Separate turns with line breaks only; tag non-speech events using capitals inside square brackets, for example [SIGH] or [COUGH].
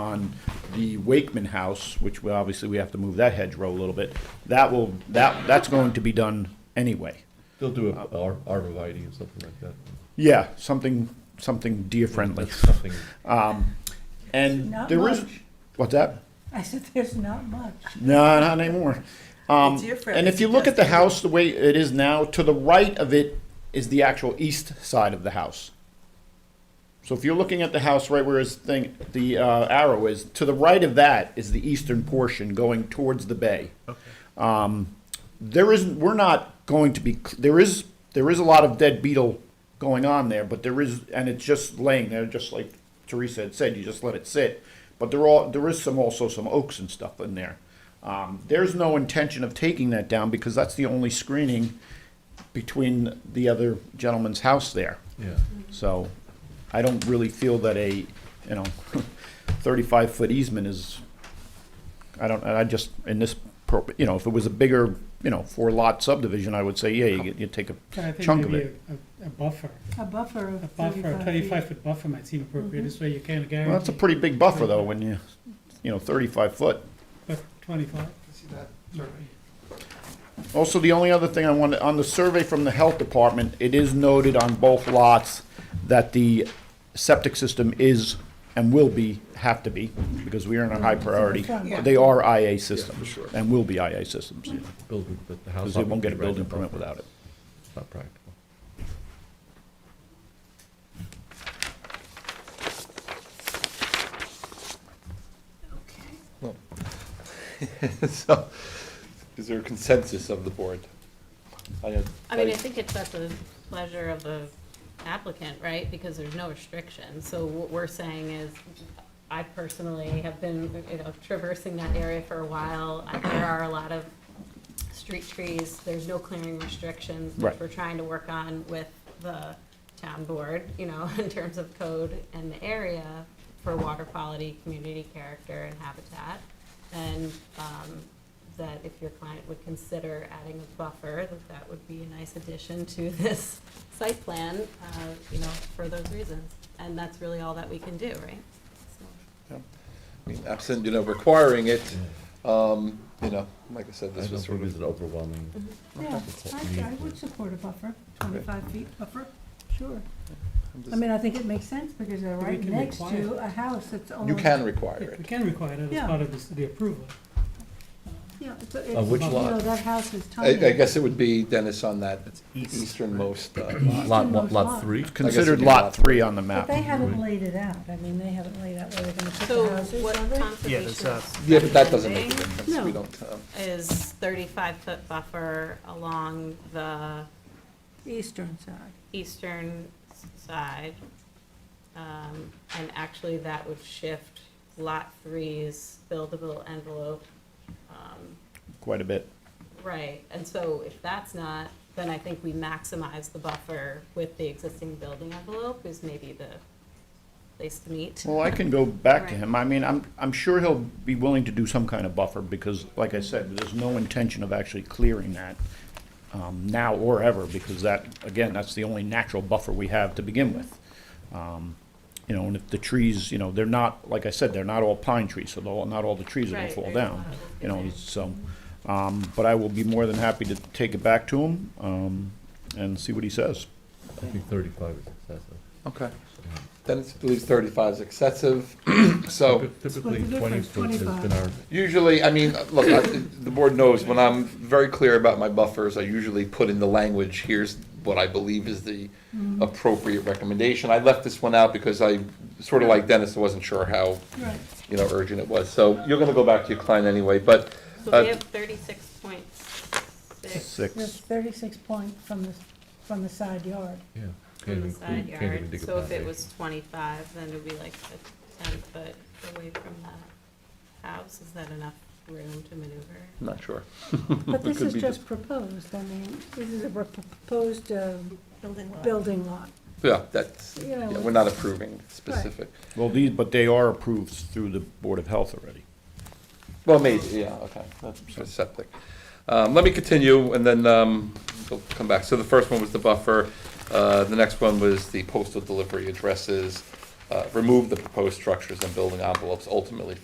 on the Wakeman House, which we, obviously we have to move that hedgerow a little bit, that will, that, that's going to be done anyway.
They'll do a
Oh.
ar- arborvitae or something like that,
Yeah, something, something deer-friendly.
something.
And
Not
there is,
much.
what's that?
I said, there's not much.
No, not anymore. Um,
Deer-friendly
and if you look at the
suggested.
house the way it is now, to the right of it is the actual east side of the house. So if you're looking at the house right where his thing, the uh, arrow is, to the right of that is the eastern portion going towards the bay. Um, there is, we're not going to be, there is, there is a lot of dead beetle going on there, but there is, and it's just laying there, just like Teresa had said, you just let it sit. But there are, there is some, also some oaks and stuff in there. Um, there's no intention of taking that down because that's the only screening between the other gentleman's house there.
Yeah,
So I don't really feel that a, you know, [LAUGHS] thirty-five foot easement is, I don't, I just, in this, pro- you know, if it was a bigger, you know, four lot subdivision, I would say, yeah, you, you take
But I
a
think
chunk of
maybe
it.
a- A a buffer,
A buffer
a
of
buffer, a
thirty-five
thirty-five
feet. Mm-hmm.
foot buffer might seem appropriate, this way you can't
Well, that's a
guarantee,
pretty big buffer though, when you, you know, thirty-five foot.
but twenty-five.
Also, the only other thing I wanted, on the survey from the health department, it is noted on both lots that the septic system is and will be, have to be, because we are in a high priority.
Yeah.
They are IA systems.
sure.
And will be IA systems.
building, but the house.
Because they won't get a
right
building
above
permit without it.
It's not practical.
[LAUGHS] So, is there a consensus of the board? I
I mean, I think it's at the pleasure of the applicant, right? Because there's no restriction. So what we're saying is, I personally have been, you know, traversing that area for a while. I- There are a lot of street trees. There's no clearing restrictions, which
Right.
we're trying to work on with the town board, you know, [LAUGHS] in terms of code and the area for water quality, community character, and habitat. And um, that if your client would consider adding a buffer, that that would be a nice addition to [LAUGHS] this site plan, uh, you know, for those reasons. And that's really all that we can do, right? So-
mean, Absent, you know, requiring it, um, you know, like I said,
I
this
don't
was
think
sort
it's
of,
an overwhelming.
Yeah, I, I would support a buffer, twenty-five feet buffer, sure.
I'm
I
just-
mean, I think it makes sense because they're
We
right
can
next to
require
a house that's only.
you can require
We
it.
can require that
Yeah.
as part of this- the approval.
Yeah, it's, it's,
On
you
which
know,
lot?
that house is
Uh, I,
tiny.
I guess it would be, Dennis, on that easternmost uh,
Lot,
lot.
one- most lot lot. three?
It's considered
be
lot
lot
three on the
But
map.
they haven't laid it out. I mean, they haven't laid out where they're gonna put
So
the houses,
what
have they?
conservation is
Yeah, but that doesn't make a
recommending
difference, we
No.
don't, um,
is thirty-five foot buffer along the
Eastern side.
eastern s- side. Um, and actually that would shift lot three's buildable envelope, um,
Quite a bit.
right. And so if that's not, then I think we maximize the buffer with the existing building envelope is maybe the place to meet.
Well, I can go back to
Right.
him. I mean, I'm, I'm sure he'll be willing to do some kind of buffer because, like I said, there's no intention of actually clearing that um, now or ever because that, again, that's the only natural buffer we have to begin with. Um, You know, and if the trees, you know, they're not, like I said, they're not all pine trees, so they'll- not all the trees are gonna
Right,
fall
there's
down.
a lot of
You know,
different-
so, um, but I will be more than happy to take it back to him um, and see what he says.
I think thirty-five is excessive.
okay. Dennis believes thirty-five is excessive, [CLEARS THROAT] so
Typ- Typically,
difference?
twenty foot has been our,
usually, I mean, look, I- the board knows when I'm very clear about my buffers, I usually put in the language, here's what I believe is the Mm-hmm. appropriate recommendation. I left this one out because I, sort of like Dennis, I wasn't sure how,
Right.
you know, urgent it was. So you're gonna go back to your client anyway, but,
So
uh,
we have thirty-six point six
There's
Six.
thirty-six point from the, from the side yard.
[LAUGHS]
yeah. can't
from the
even-
side
can't even
yard,
dig a
so if it
foundation.
was twenty-five, then it'd be like a ten foot away from the house, is that enough room to maneuver?
I'm not sure.
But this
could
is
be
just proposed, I mean, this is a pro- proposed um, building lot.
Yeah, that's,
You know,
yeah, we're not approving specific.
Well, these, but they are approved through the Board of Health already.
Well, maybe, yeah, okay, that's for septic. Um, let me continue, and then, um, we'll come back. So the first one was the buffer, uh, the next one was the postal delivery addresses. uh, remove the proposed structures and building envelopes ultimately